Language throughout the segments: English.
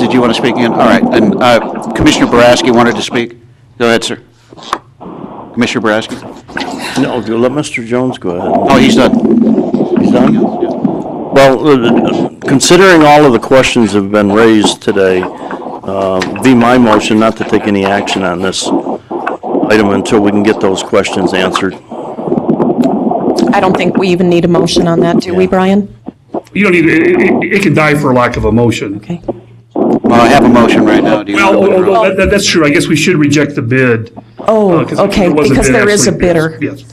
did you want to speak again? All right, and uh, Commissioner Boraski wanted to speak. Go ahead, sir. Commissioner Boraski? No, let Mr. Jones go ahead. Oh, he's done. He's done? Well, uh, considering all of the questions that have been raised today, uh, be my motion not to take any action on this item until we can get those questions answered. I don't think we even need a motion on that, do we, Brian? You don't need, it, it- it can die for lack of a motion. Okay. Well, I have a motion right now. Do you want Well, to withdraw? although that- that- that's true, I guess we should reject the bid. Oh, uh, 'cause okay, was a because bid there is a actually, yes, bidder. Yes.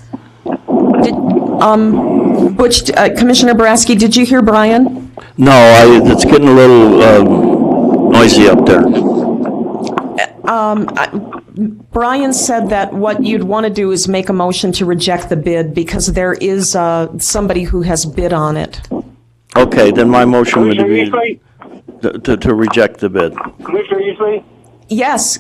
Did- um, Butch, uh, Commissioner Boraski, did you hear Brian? No, I, it's getting a little um, noisy up there. Brian said that what you'd want to do is make a motion to reject the bid because there is uh, somebody who has bid on it. Okay, then my motion would Commissioner be Eastley? to- to to reject the bid. Commissioner Eastley? Yes,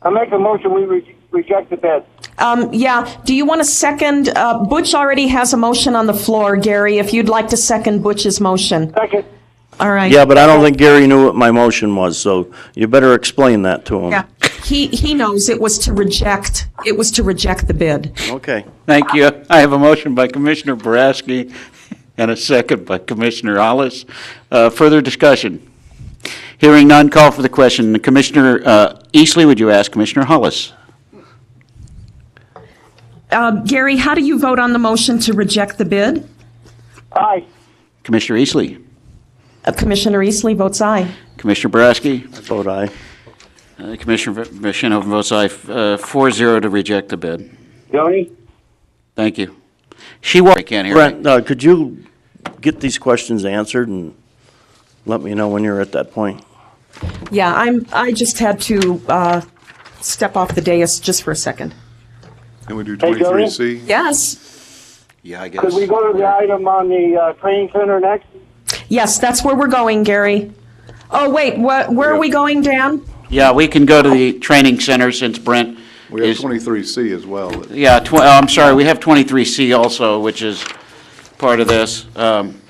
I make a motion, we re- reject the bid. um, yeah, do you want to second, uh, Butch already has a motion on the floor, Gary, if you'd like to second Butch's motion. Second, All right. Yeah, but I don't think Gary knew what my motion was, so you better explain that to him. Yeah, he, he knows it was to reject, it was to reject the bid. Okay. Thank you. I have a motion by Commissioner Boraski and a second by Commissioner Hollis. Uh, Further discussion? Hearing none, call for the question. Commissioner uh, Eastley, would you ask Commissioner Hollis? Uh, Gary, how do you vote on the motion to reject the bid? aye. Commissioner Eastley? Uh, Commissioner Eastley votes aye. Commissioner Boraski? Vote aye. Uh, Commissioner V- Shinoff votes aye, uh, 4-0 to reject the bid. Tony? Thank you. She wa, I can't hear Brent, you. uh, could you get these questions answered and let me know when you're at that point? Yeah, I'm, I just had to uh, step off the dais just for a second. Can we do Hey, Gary? 23C? Yes, Yeah, I guess. Could we go to the item on the uh, training center next? yes, that's where we're going, Gary. Oh, wait, wha- where are we going, Dan? Yeah, we can go to the training center since Brent We have is. 23C as well. Yeah, tw- oh, I'm sorry, we have 23C also, which is part of this. Um,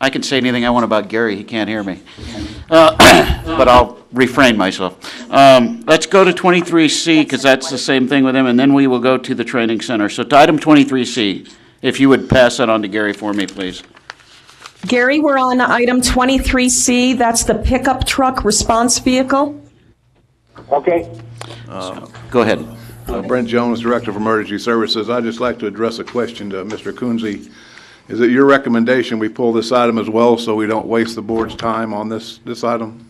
I can say anything I want about Gary, he can't hear me. Uh, But I'll refrain myself. Um, Let's go to 23C, because that's the same thing with him, and then we will go to the training center. So to item 23C, if you would pass that on to Gary for me, please. Gary, we're on item 23C, that's the pickup truck response vehicle. Okay. Go ahead. Uh, Brent Jones, Director of Emergency Services. I'd just like to address a question to Mr. Coonsey. Is it your recommendation we pull this item as well so we don't waste the board's time on this, this item?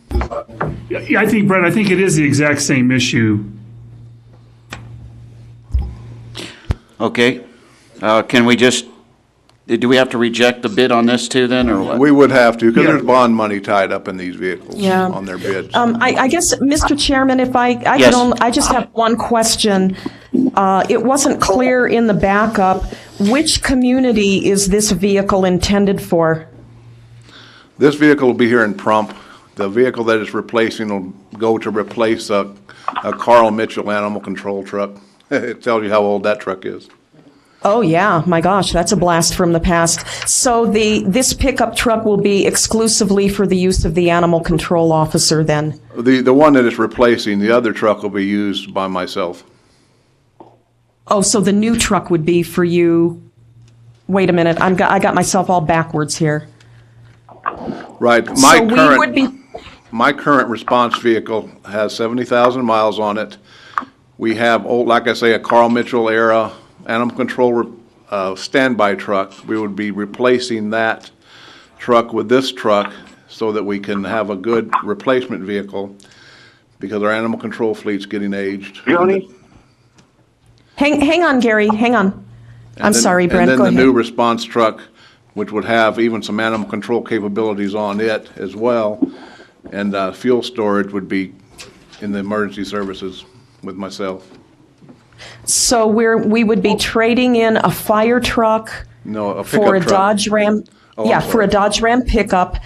Yeah, yeah, I think, Brett, I think it is the exact same issue. Okay. Uh, Can we just, do we have to reject the bid on this too then, or what? We would have to, because Yeah. there's bond money tied up in these vehicles, Yeah. on their bids. Um, I, I guess, Mr. Chairman, if I, I Yes. can only, I just have one question. Uh, it wasn't clear in the backup, which community is this vehicle intended for? This vehicle will be here in Prump. The vehicle that it's replacing will go to replace a a Carl Mitchell animal control truck. It tells you how old that truck is. Oh, yeah, my gosh, that's a blast from the past. So the, this pickup truck will be exclusively for the use of the animal control officer then? The, the one that it's replacing, the other truck will be used by myself. Oh, so the new truck would be for you? Wait a minute, I'm, got- I got myself all backwards here. Right, my So we would be, current, my current response vehicle has seventy thousand miles on it. We have old, like I say, a Carl Mitchell era animal control, uh, standby truck. We would be replacing that truck with this truck so that we can have a good replacement vehicle because our animal control fleet's getting aged. Tony? hang, hang on, Gary, hang on. I'm then- sorry, Brent, go ahead. And then the new response truck, which would have even some animal control capabilities on it as well, and uh, fuel storage would be in the emergency services with myself. So we're, we would be trading in a fire truck Oh. No, a for a pickup truck. Dodge Ram, Oh, I'm yeah, for a sorry. Dodge Ram pickup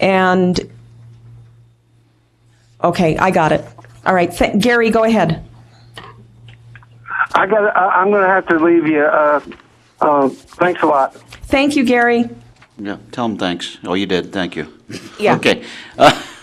and, okay, I got it. All right, th- Gary, go ahead. I got, I'm gonna have to leave you, uh, uh, thanks a lot. Thank you, Gary. Yeah, tell them thanks. Oh, you did, thank you. Yeah. Okay. Uh,